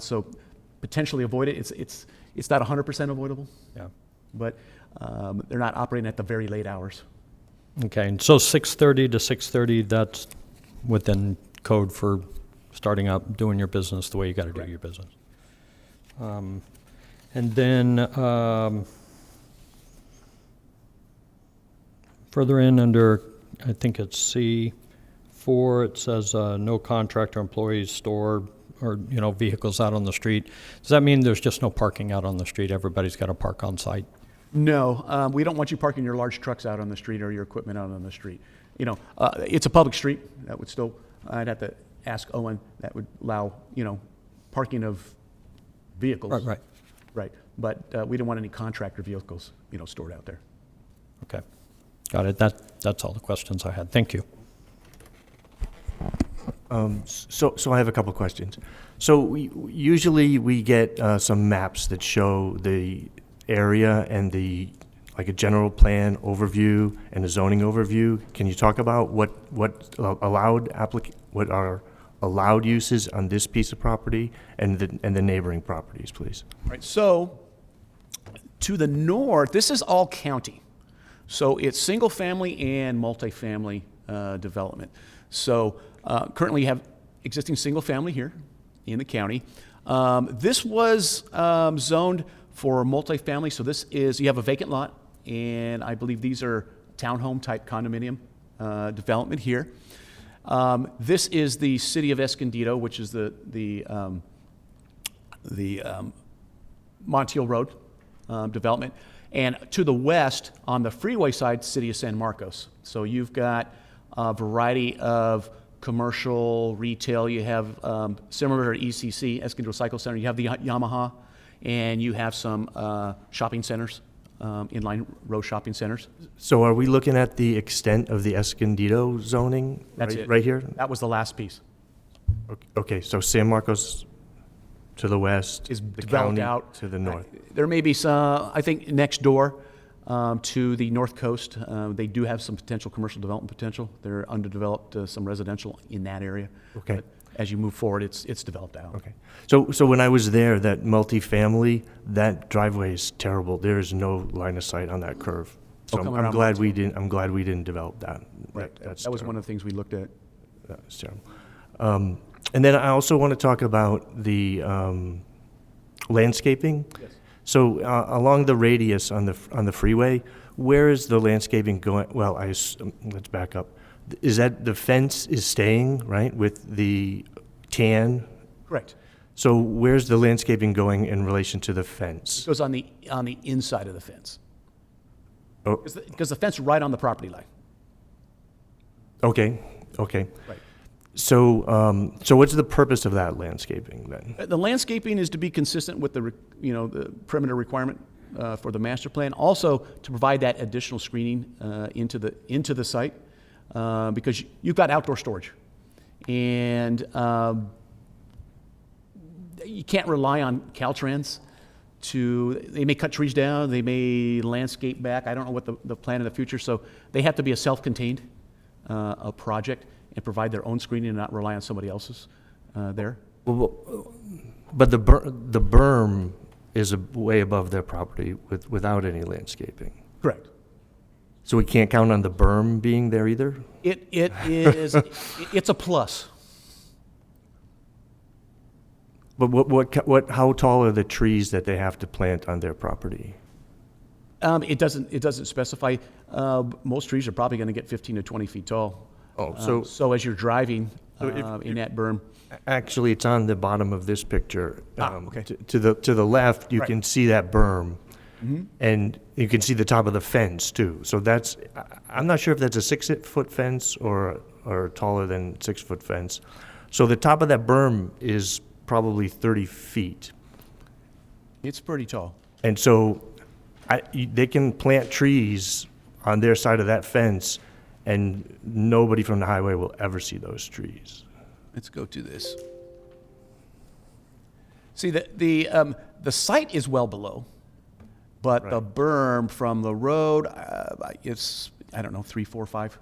So potentially avoid it. It's, it's, it's not 100% avoidable, Yeah. but um, they're not operating at the very late hours. Okay, and so 6:30 to 6:30, that's within code for starting up, doing your business the way you got to do Correct. your business. Um, And then, um, further in under, I think it's C4, it says, uh, "No contractor employees store or, you know, vehicles out on the street." Does that mean there's just no parking out on the street? Everybody's got to park on site? No, um, we don't want you parking your large trucks out on the street or your equipment out on the street. You know, uh, it's a public street. That would still, I'd have to ask Owen, that would allow, you know, parking of vehicles. Right, right, Right. But uh, we don't want any contractor vehicles, you know, stored out there. okay. Got it, that, that's all the questions I had, thank you. Um, s- So, so I have a couple of questions. So we- usually we get uh, some maps that show the area and the, like a general plan overview and a zoning overview. Can you talk about what, what allowed applic, what are allowed uses on this piece of property and the, and the neighboring properties, please? Right, so to the north, this is all county. So it's single family and multifamily uh, development. So uh, currently you have existing single family here in the county. Um, this was um, zoned for multifamily, so this is, you have a vacant lot, and I believe these are townhome type condominium uh, development here. Um, this is the city of Escondido, which is the, the, um, the um, Montiel Road um, development. And to the west, on the freeway side, city of San Marcos. So you've got a variety of commercial, retail. You have um, similar to ECC, Escondido Cycle Center. You have the Yamaha, and you have some uh, shopping centers, um, inline row shopping centers. So are we looking at the extent of the Escondido zoning? That's right- it. Right here? That was the last piece. Okay, so San Marcos to the west. is the developed county out. To the north. I- There may be some, I think, next door um, to the north coast, uh, they do have some potential commercial development potential. They're underdeveloped, uh, some residential in that area. Okay. But As you move forward, it's, it's developed out. Okay. So, so when I was there, that multifamily, that driveway is terrible. There is no line of sight on that curve. So Oh, come I'm- I'm around glad we didn't, I'm glad we didn't develop that. Right, That- That's that was one of the things we looked at. terrible. That was terrible. Um, And then I also want to talk about the um, landscaping. Yes. So uh, along the radius on the, f- on the freeway, where is the landscaping going? Well, I, ass- um, let's back up. Is that, the fence is staying, right, with the tan Correct. so where's the landscaping going in relation to the fence? Goes on the, on the inside of the fence. Oh, Because the, 'cause the fence is right on the property line. okay, okay. Right. So, um, so what's the purpose of that landscaping then? Uh, The landscaping is to be consistent with the, re- you know, the perimeter requirement uh, for the master plan, also to provide that additional screening uh, into the, into the site, uh, because you- you've got outdoor storage. And um, you can't rely on Caltrans to, they may cut trees down, they may landscape back, I don't know what the, the plan in the future, so they have to be a self-contained, uh, a project, and provide their own screening and not rely on somebody else's uh, there. But the ber, the berm is a- way above their property with, without any landscaping. Correct. So we can't count on the berm being there either? It, it is, it- it's a plus. But what, what, ca- what, how tall are the trees that they have to plant on their property? Um, it doesn't, it doesn't specify, uh, most trees are probably gonna get fifteen to twenty feet tall. Oh, Um, so- So as you're driving, So if- uh, in that berm, Actually, it's on the bottom of this picture. Ah, Um, okay. t- To the, to the left, you Right. Mm-hmm. can see that berm. And you can see the top of the fence too. So that's, I- I'm not sure if that's a six-foot fence or, or taller than six-foot fence. So the top of that berm is probably 30 feet. it's pretty tall. And so I, you- they can plant trees on their side of that fence and nobody from the highway will ever see those trees. Let's go to this. See, the, the, um, the site is well below, but the berm from the road, uh, it's, I don't know, three, four, five,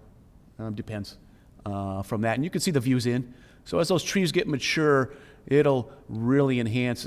um, depends, uh, from that. And you can see the views in. So as those trees get mature, it'll really enhance